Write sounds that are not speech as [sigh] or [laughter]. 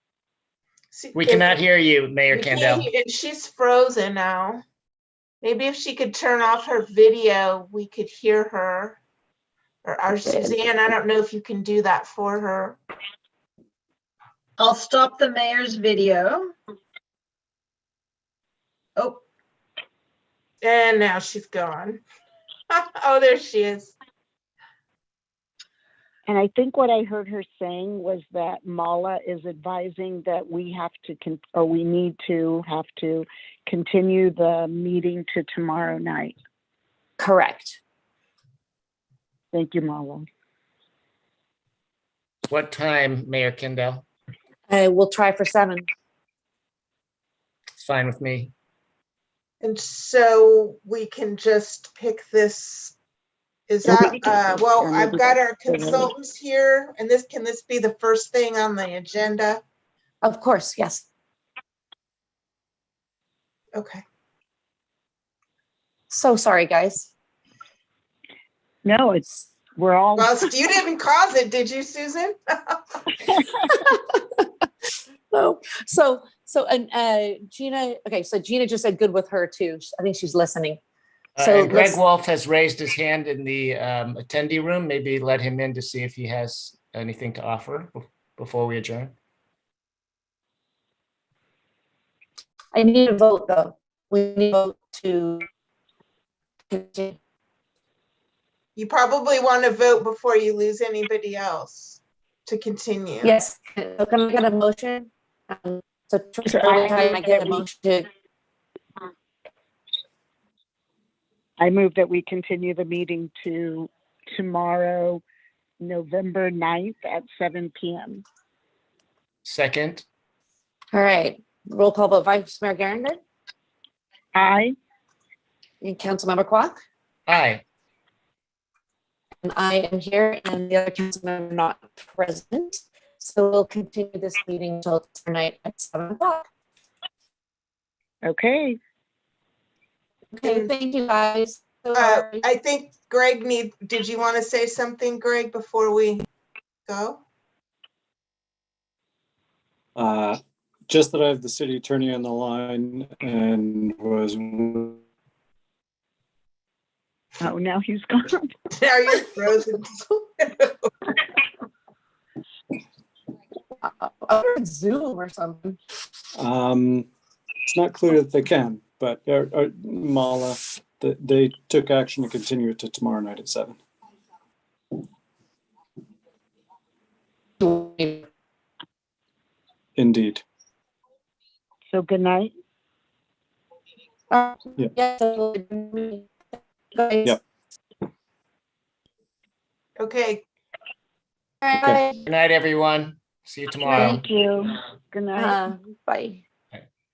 She- We if- cannot hear you, Mayor we can't Candell. hear- And she's frozen now. Maybe if she could turn off her video, we could hear her. Or our Suzanne, I don't know if you can do that for her. I'll stop the mayor's video. Oh, And now she's gone. [laughs] Oh, there she is. And I think what I heard her saying was that Mala is advising that we have to, con- or we need to have to continue the meeting to tomorrow night. Correct. Thank you, Mala. What time, Mayor Kendall? I will try for seven. It's fine with me. And so we can just pick this. Is Yeah, that, we can uh, pick well, them. I've got our They're ready. consultants here and this, can this be the first thing on the agenda? Of course, yes. Okay, So sorry, guys. No, it's, we're all, well, you didn't cause it, did you, Susan? [laughs] So, so, so, and uh, Gina, okay, so Gina just said good with her too. I think she's listening. Uh, So and Greg let's- Wolf has raised his hand in the um, attendee room. Maybe let him in to see if he has anything to offer bef- before we adjourn. I need a vote though. We need a vote to. You probably want to vote before you lose anybody else to continue. Yes, so can I get a motion? Um, So Tricia, can I get a motion to, I move that we continue the meeting to tomorrow, November 9th at seven PM. Second, all right, roll call vote, Vice Mayor Garrett Aye, and Councilmember Quack? aye. And I am here and the other council member not present. So we'll continue this meeting till tonight at seven o'clock. okay. Okay, thank you guys. So Mm-hmm. Uh, sorry. I think Greg need, did you want to say something, Greg, before we go? [laughs] Uh, Just that I have the city attorney on the line and was, Oh, now he's gone. [laughs] Now you're frozen. Uh, Over Zoom or something. um, it's not clear that they can, but uh, uh, Mala, th- they took action to continue it to tomorrow night at seven. Indeed. So good night. Uh, Yeah. yeah, so we'll- guys, Yep. Okay, Bye. Good night, everyone. See you tomorrow. Thank you. Good night. Uh, Bye.